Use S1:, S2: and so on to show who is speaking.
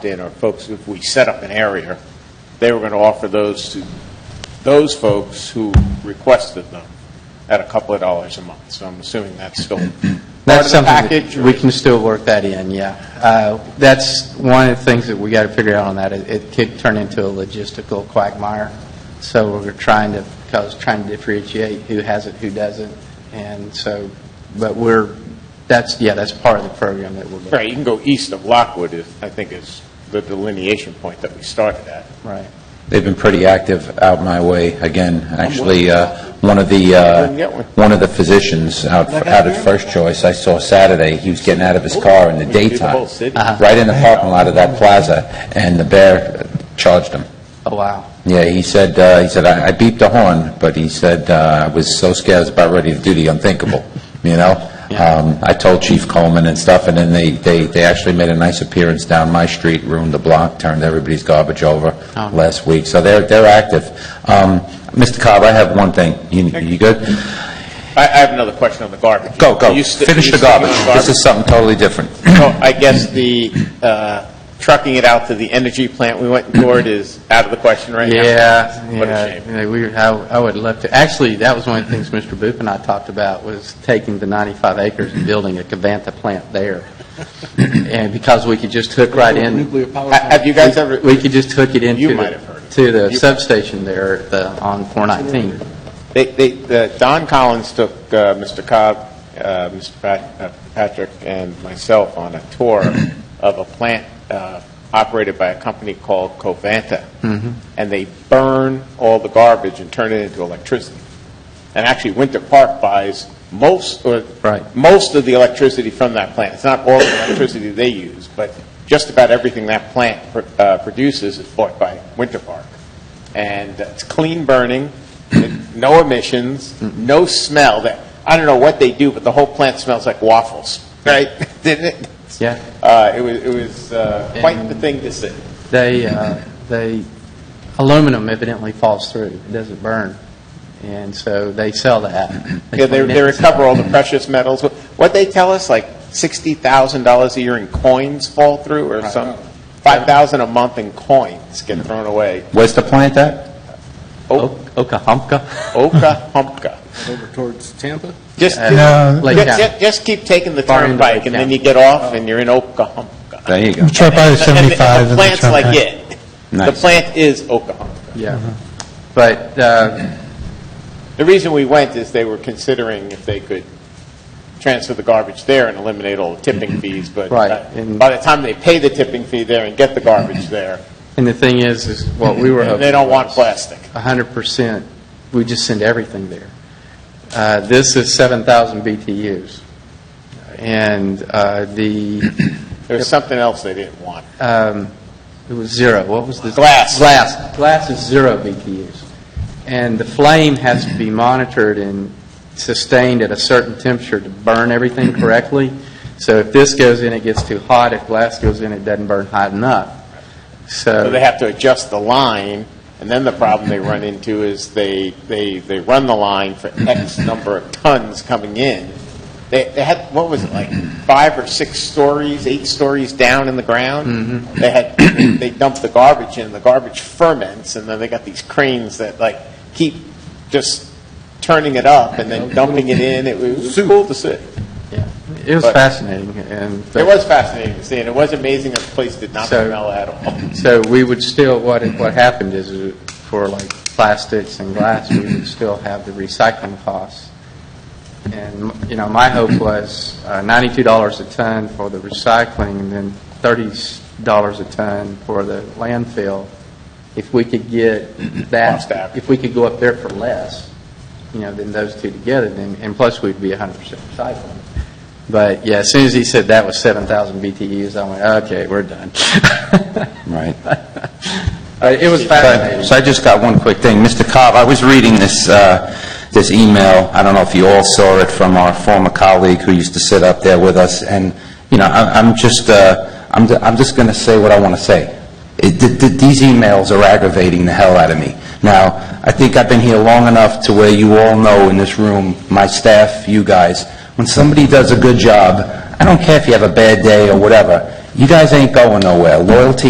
S1: did, or folks, if we set up an area, they were going to offer those to those folks who requested them at a couple of dollars a month. So I'm assuming that's still part
S2: That's
S1: of the
S2: something
S1: package.
S2: that
S1: or-
S2: we can still work that in, yeah. Uh, That's one of the things that we got to figure out on that. It- It could turn into a logistical quagmire. So we're trying to, because trying to differentiate who has it, who doesn't. And so, but we're, that's, yeah, that's part of the program that we're doing.
S1: Right, you can go east of Lockwood, is- I think is the delineation point that we started at.
S2: Right.
S3: They've been pretty active out my way, again, actually, uh, one of the, uh,
S1: Didn't get one.
S3: one of the physicians out out at First Choice, I saw Saturday, he was getting out of his car in the
S1: We could do the
S3: daytime,
S1: whole city.
S3: right in the parking lot of that plaza, and the bear charged him.
S2: Oh, wow.
S3: Yeah, he said, uh, he said, "I I beeped the horn," but he said, uh, "I was so scared, I was about ready to do the unthinkable," you know?
S2: Yeah.
S3: Um, I told Chief Coleman and stuff, and then they, they they actually made a nice appearance down my street, ruined the block, turned everybody's garbage over
S2: Oh.
S3: last week, so they're, they're active. Um, Mr. Cobb, I have one thing. You you good?
S1: I I have another question on the garbage.
S3: Go, go,
S1: Are you sti-
S3: finish
S1: you
S3: the
S1: sticking on
S3: garbage. This is something totally different.
S1: So I guess the uh, trucking it out to the energy plant we went and toured is out of the question right now?
S2: Yeah,
S1: What a
S2: yeah.
S1: shame.
S2: Yeah, We, I I would love to, actually, that was one of the things Mr. Boop and I talked about, was taking the 95 acres and building a Cavanta plant there. And because we could just hook right in.
S4: Nuclear power
S1: Ha- Have you guys ever,
S2: We could just hook it into.
S1: You
S2: the-
S1: might have heard it.
S2: To the
S1: You-
S2: substation there at the, on 419.
S1: they, they, the- Don Collins took uh, Mr. Cobb, uh, Mr. Pat- uh, Patrick, and myself on a tour of a plant uh, operated by a company called Covanta. And they burn all the garbage and turn it into electricity. And actually, Winter Park buys most, uh, or
S2: Right.
S1: most of the electricity from that plant. It's not all the electricity they use, but just about everything that plant pr- uh, produces is bought by Winter Park. And it's clean burning, it- no emissions, no smell. That I don't know what they do, but the whole plant smells like waffles, right? Didn't it?
S2: Yeah.
S1: Uh, It was, it was uh, quite the thing to see.
S2: They, uh, they, aluminum evidently falls through, it doesn't burn, and so they sell that.
S1: Yeah, they, they
S2: clean it.
S1: recover all the precious metals. What they tell us, like sixty thousand dollars a year in coins fall through, or some five thousand a month in coins get thrown away.
S3: Where's the plant at?
S1: O-
S2: O- Okahumpka?
S1: Oka humpka.
S4: over towards Tampa?
S1: Just,
S2: No. Lake
S1: ju- ju-
S2: County.
S1: just keep taking the
S2: Far into
S1: turnpike,
S2: Lake
S1: and then
S2: County.
S1: you get off, and you're in Oka humpka.
S3: There you go.
S5: It's right by the 75
S1: The
S5: and the
S1: plant's like
S5: turnpike.
S1: it. The
S3: Nice.
S1: plant is Oka humpka.
S2: Yeah.
S1: Mm-hmm.
S2: But, uh,
S1: The reason we went is they were considering if they could transfer the garbage there and eliminate all the tipping fees, but
S2: Right,
S1: uh,
S2: and-
S1: by the time they pay the tipping fee there and get the garbage there,
S2: and the thing is, is what we were hoping.
S1: they don't want
S2: was-
S1: plastic.
S2: 100%, we just send everything there. Uh, This is 7,000 BTUs, and uh, the,
S1: There was something else they didn't want.
S2: um, it was zero, what was the?
S1: Glass.
S2: Glass, glass is zero BTUs. And the flame has to be monitored and sustained at a certain temperature to burn everything correctly. So if this goes in, it gets too hot, if glass goes in, it doesn't burn hot enough.
S1: So they have to adjust the line, and then the problem they run into is they, they, they run the line for X number of tons coming in. They, they had, what was it, like five or six stories, eight stories down in the ground? They had, they dumped the garbage in, the garbage ferments, and then they got these cranes that like keep just turning it up and then dumping it in. It was cool to see.
S2: Yeah, It was
S1: But-
S2: fascinating, and.
S1: It was fascinating to see, and it was amazing that the place did not
S2: So-
S1: smell at all.
S2: So we would still, what, what happened is, uh, for like plastics and glass, we would still have the recycling costs. And, you know, my hope was uh, $92 a ton for the recycling, and then $30 a ton for the landfill. If we could get
S1: Cost
S2: that,
S1: average.
S2: if we could go up there for less, you know, than those two together, then, and plus we'd be 100% recycling. But, yeah, as soon as he said that was 7,000 BTUs, I went, okay, we're done.
S3: Right.
S2: Uh, It was
S3: So
S2: fascinating.
S3: so I just got one quick thing. Mr. Cobb, I was reading this, uh, this email, I don't know if you all saw it, from our former colleague who used to sit up there with us, and, you know, I- I'm just, uh, I'm I'm just going to say what I want to say. It- th- th- These emails are aggravating the hell out of me. Now, I think I've been here long enough to where you all know in this room, my staff, you guys, when somebody does a good job, I don't care if you have a bad day or whatever, you guys ain't going nowhere. Loyalty